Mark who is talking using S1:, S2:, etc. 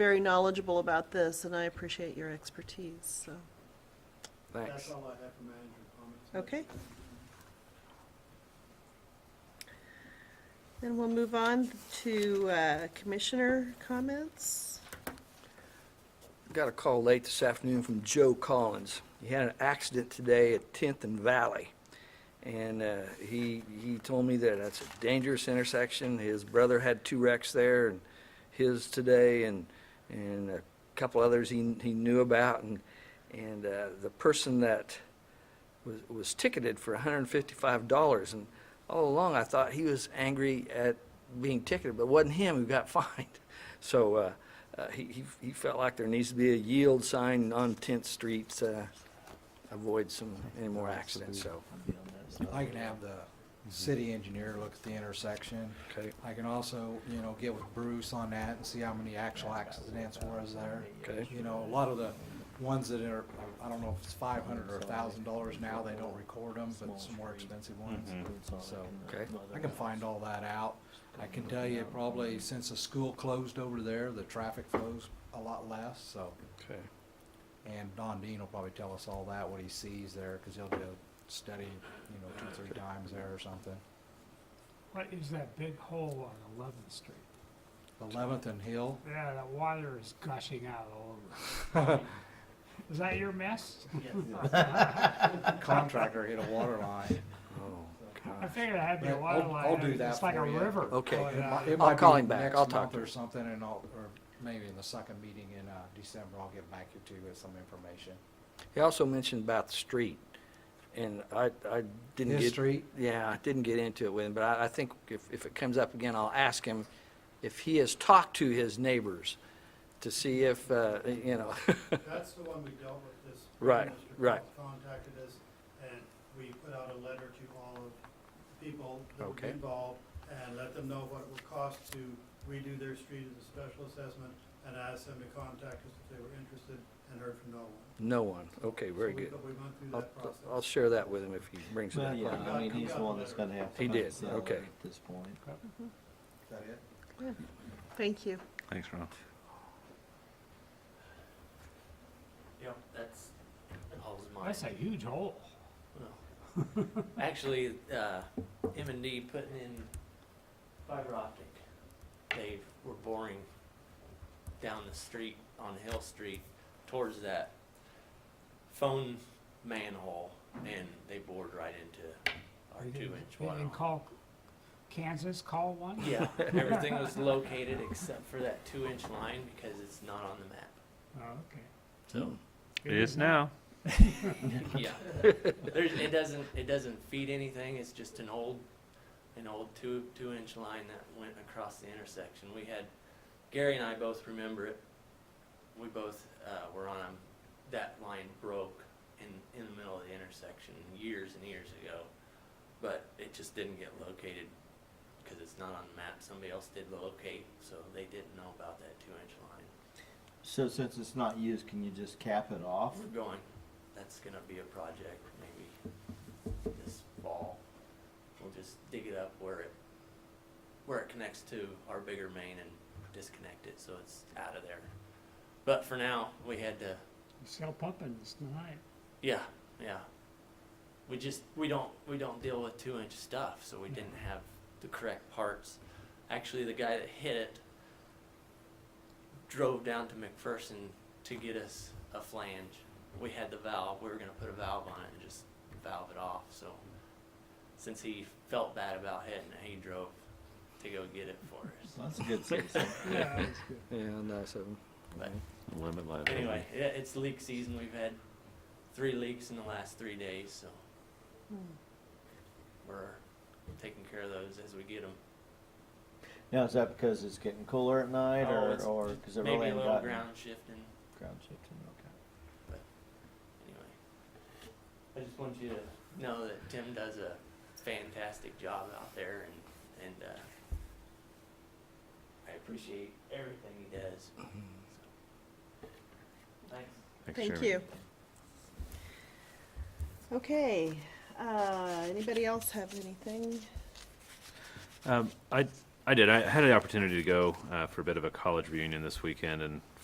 S1: very knowledgeable about this, and I appreciate your expertise, so,
S2: Thanks.
S3: That's all I have for manager comments.
S1: okay. Then we'll move on to uh, commissioner comments.
S2: Got a call late this afternoon from Joe Collins. He had an accident today at 10th and Valley. And uh, he, he told me that that's a dangerous intersection. His brother had two wrecks there, and his today, and, and a couple others he, he knew about. And, and uh, the person that was, was ticketed for $155. And all along, I thought he was angry at being ticketed, but it wasn't him who got fined. So uh, uh, he, he, he felt like there needs to be a yield sign on 10th Street to avoid some, any more accidents, so.
S4: I can have the city engineer look at the intersection.
S2: Okay.
S4: I can also, you know, get with Bruce on that and see how many actual accidents was there.
S2: Okay.
S4: You know, a lot of the ones that are, I don't know if it's five hundred or a thousand dollars now, they don't record them, but some more expensive ones. Mm.
S3: Mm-hmm.
S4: So,
S2: Okay.
S4: I can find all that out. I can tell you probably since the school closed over there, the traffic flows a lot less, so.
S2: Okay.
S4: And Don Dean will probably tell us all that, what he sees there, because he'll do a study, you know, two, three times there or something.
S5: What is that big hole on Eleventh Street?
S4: Eleventh and Hill,
S5: Yeah, the water is gushing out all over. it. Is that your mess?
S4: contractor hit a water line.
S2: Oh,
S5: I
S2: gosh.
S5: figured it had to be a
S4: Yeah,
S5: water
S4: I'll-
S5: line.
S4: I'll do that
S5: It's like a
S4: for you.
S5: river. Oh,
S2: Okay.
S5: going
S4: It mi-
S5: out.
S4: it
S2: I'll
S4: might
S2: call
S4: be
S2: him back.
S4: next
S2: I'll talk
S4: month
S2: to him.
S4: Or something, and I'll, or maybe in the second meeting in, uh, December, I'll get back to you with some information.
S2: He also mentioned about the street, and I, I didn't
S4: His
S2: get,
S4: street,
S2: yeah, I didn't get into it with him, but I, I think if, if it comes up again, I'll ask him if he has talked to his neighbors to see if, uh, you know,
S3: That's the one we dealt with this.
S2: Right,
S3: Mr.
S2: right.
S3: Cox Contacted us, and we put out a letter to all of the people that were
S2: Okay.
S3: involved, and let them know what it would cost to redo their street as a special assessment, and asked them to contact us if they were interested, and heard from no one.
S2: no one. Okay,
S3: So
S2: very
S3: we-
S2: good.
S3: But we went through
S2: I'll,
S3: that process.
S2: I'll share that with him if he brings it
S6: Well,
S2: up.
S6: yeah, I mean, he's the one that's gonna have to.
S2: He did,
S6: settle
S2: okay.
S6: At this point.
S4: is that it?
S1: Thank you.
S6: Thanks, Ron.
S7: Yep, that's, that was mine.
S5: That's a huge hole.
S7: No. Actually, uh, M and D putting in fiber optic. They were boring down the street on Hill Street towards that phone manhole and they bored right into our
S5: They
S7: two
S5: didn't-
S7: inch
S5: They
S7: water.
S5: didn't
S7: line.
S5: call Kansas, call one?
S7: Yeah, everything was located except for that two inch line because it's not on the map.
S5: Oh, okay.
S7: So,
S8: It is now.
S7: yeah. There's, it doesn't, it doesn't feed anything, it's just an old, an old two, two inch line that went across the intersection. We had, Gary and I both remember it. We both, uh, were on, um, that line broke in, in the middle of the intersection years and years ago. But it just didn't get located, cause it's not on the map, somebody else did locate, so they didn't know about that two inch line.
S6: So since it's not used, can you just cap it off?
S7: We're going, that's gonna be a project maybe this fall. We'll just dig it up where it, where it connects to our bigger main and disconnect it so it's out of there. But for now, we had to,
S5: Sell pumpkins tonight.
S7: yeah, yeah. We just, we don't, we don't deal with two inch stuff, so we didn't have the correct parts. Actually, the guy that hit it drove down to McPherson to get us a flange. We had the valve, we were gonna put a valve on it and just valve it off, so. Since he felt bad about hitting it, he drove to go get it for us.
S6: That's a good citizen.
S5: Yeah, that's good.
S2: Yeah, nice of him.
S7: But
S8: Limit
S7: anyway, yeah, it's leak season, we've had three leaks in the last three days, so. We're taking care of those as we get them.
S6: Now, is that because it's getting cooler at night
S7: Oh,
S6: or,
S7: it's
S6: or because it
S7: Maybe
S6: really
S7: a
S6: ain't
S7: little
S6: got
S7: ground shifting,
S6: ground shifting? Okay.
S7: anyway. I just want you to know that Tim does a fantastic job out there and, and, uh, I appreciate everything he does. So,
S6: Mm-hmm.
S7: Thanks.
S1: Thank you. Okay, uh, anybody else have anything?
S8: Um, I I did. I had the opportunity to go uh, for a bit of a college reunion this weekend, and